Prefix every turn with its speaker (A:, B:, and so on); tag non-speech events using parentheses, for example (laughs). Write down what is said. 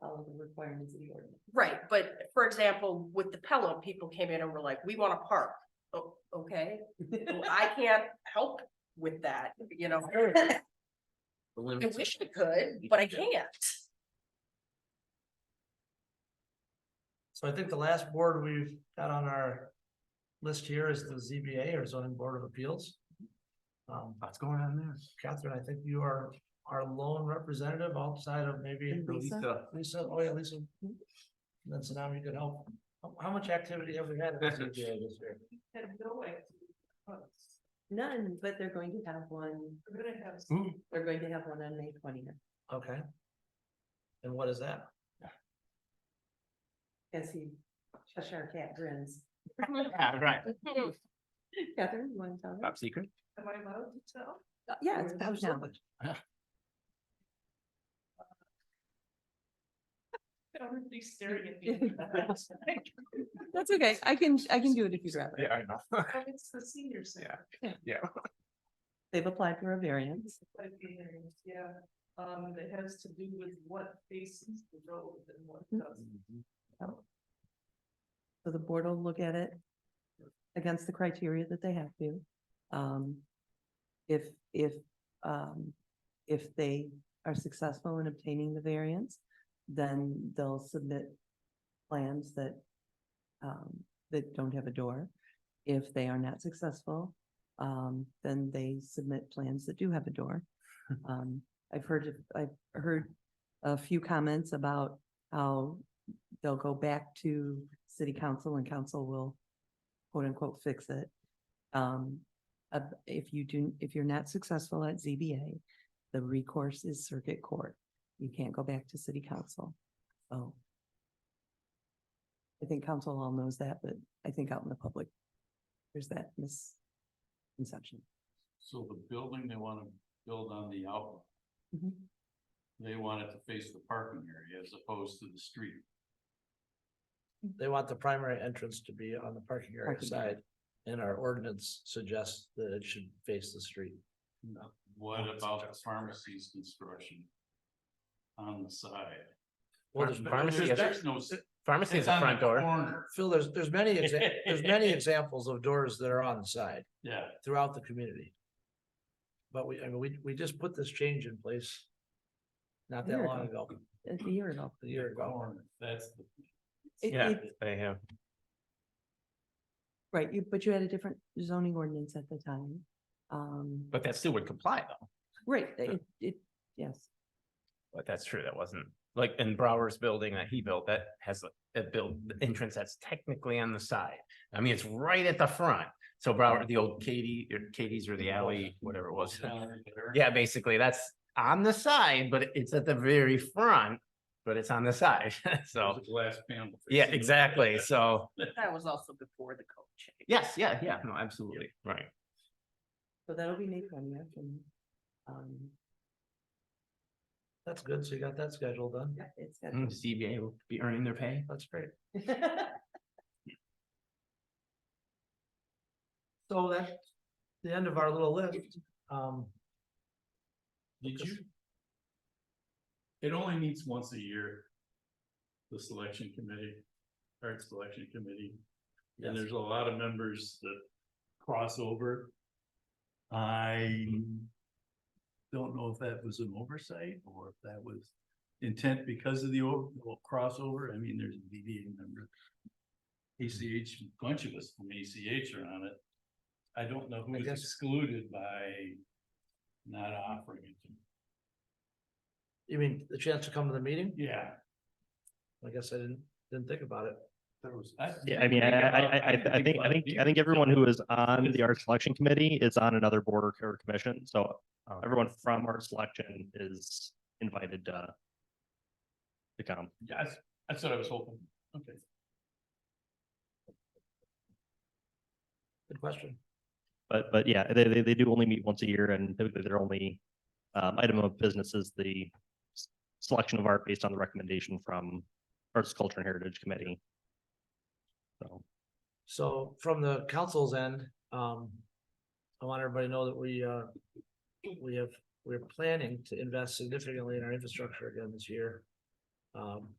A: follow the requirements of the ordinance.
B: Right, but for example, with the Pelham, people came in and were like, we wanna park. Oh, okay, Well, I can't help with that, you know, I
C: The limits
B: wish I could, but I can't.
D: So I think the last board we've got on our list here is the ZBA or zoning board of appeals. Um,
C: What's going on there?
D: Catherine, I think you are our lone representative outside of maybe
A: And Lisa?
C: Lisa,
D: Lisa, oh yeah, Lisa. Then Sanam, you could help. How, how much activity have we had? at the
C: (laughs)
D: ZBA this year?
A: None, but they're going to have one. They're going to have.
C: Hmm.
A: They're going to have one on May twentieth,
D: Okay. And what is that? (laughs)
A: as he, Cheshire Cat grins.
C: (laughs) Yeah, right,
A: Catherine, you want to tell?
C: top secret.
A: Am I allowed to tell? Yeah, it's about now.
E: Everybody's staring at me.
A: (laughs) That's okay. I can, I can do it if you'd rather.
C: I know.
E: Oh, It's the senior center.
C: Yeah.
A: They've applied for a variance.
E: but the areas, Yeah, um, and it has to do with what faces the road and what doesn't.
F: Mhm.
A: So the board will look at it against the criteria that they have to. Um, if, if, um, if they are successful in obtaining the variance, then they'll submit plans that, um, that don't have a door. If they are not successful, um, then they submit plans that do have a door. Um, I've heard, of- I've heard a few comments about how they'll go back to city council and council will quote unquote fix it. Um, uh, if you do, if you're not successful at ZBA, the recourse is circuit court. You can't go back to city council. So I think council all knows that, but I think out in the public, there's that misconception.
F: So the building they wanna build on the out, they want it to face the parking area as opposed to the street.
D: They want the primary entrance to be on the parking area
A: Parking area.
D: side. And our ordinance suggests that it should face the street.
F: What
D: Oh, it's
F: about the
D: just-
F: pharmacy's construction? On the side.
D: Well, there's-
C: Pharmacy
D: there's-
C: is-
F: There's no.
C: Pharmacy is
F: It's
C: the
F: on
C: front door.
F: corner.
D: Phil, there's, there's many, exa- there's many examples of doors that are on the side.
F: Yeah,
D: throughout the community. But we, I mean, we, we just put this change in place. Not that
A: Year
D: long
A: ago.
D: ago,
A: A year ago.
D: a year ago.
F: corner, that's the.
A: It-
C: Yeah,
A: it-
C: they have.
A: Right, you, but you had a different zoning ordinance at the time. Um,
C: But that still would comply though.
A: right, it, it, yes.
C: But that's true. That wasn't like in Brower's building that he built that has a- a build the entrance that's technically on the side. I mean, it's right at the front. So Brower, the old Katie, or Katie's or the alley, whatever it was. Yeah, basically that's on the side, but it's at the very front, but it's on the side. (laughs) So,
F: Glass panel.
C: yeah, exactly. So,
B: That was also before the code change.
C: yes, yeah, yeah, no, absolutely. Right.
A: So that'll be May twentieth and, um,
D: That's good. So you got that scheduled done.
A: yeah, it's. got-
C: Mm, CBA will be earning their pay.
D: That's great.
A: (laughs)
D: So that's the end of our little list. Um,
F: Did you? It only meets once a year. The selection committee, art selection committee. And there's a lot of members that cross over. I don't know if that was an oversight or if that was intent because of the o- well, crossover. I mean, there's a DDA member. ACH, a bunch of us from ACH are on it. I don't know
D: I
F: who was
D: guess-
F: excluded by not offering it. to me.
D: you mean the chance to come to the meeting?
F: Yeah,
D: I guess I didn't, didn't think about it.
F: there was. I-
G: Yeah, I mean, I, I, I, I- I think, I think, I think everyone who is on the art selection committee is on another board or co- or commission, so
C: Oh.
G: everyone from art selection is invited to to come.
F: Yeah, that's- that's what I was hoping. Okay.
D: Good question.
G: But, but yeah, they, they, they do only meet once a year and typically their only um, item of business is the s- selection of art based on the recommendation from Arts, Culture and Heritage Committee. So.
D: So from the council's end, um, I want everybody to know that we, uh, we have, we're planning to invest significantly in our infrastructure again this year. Um,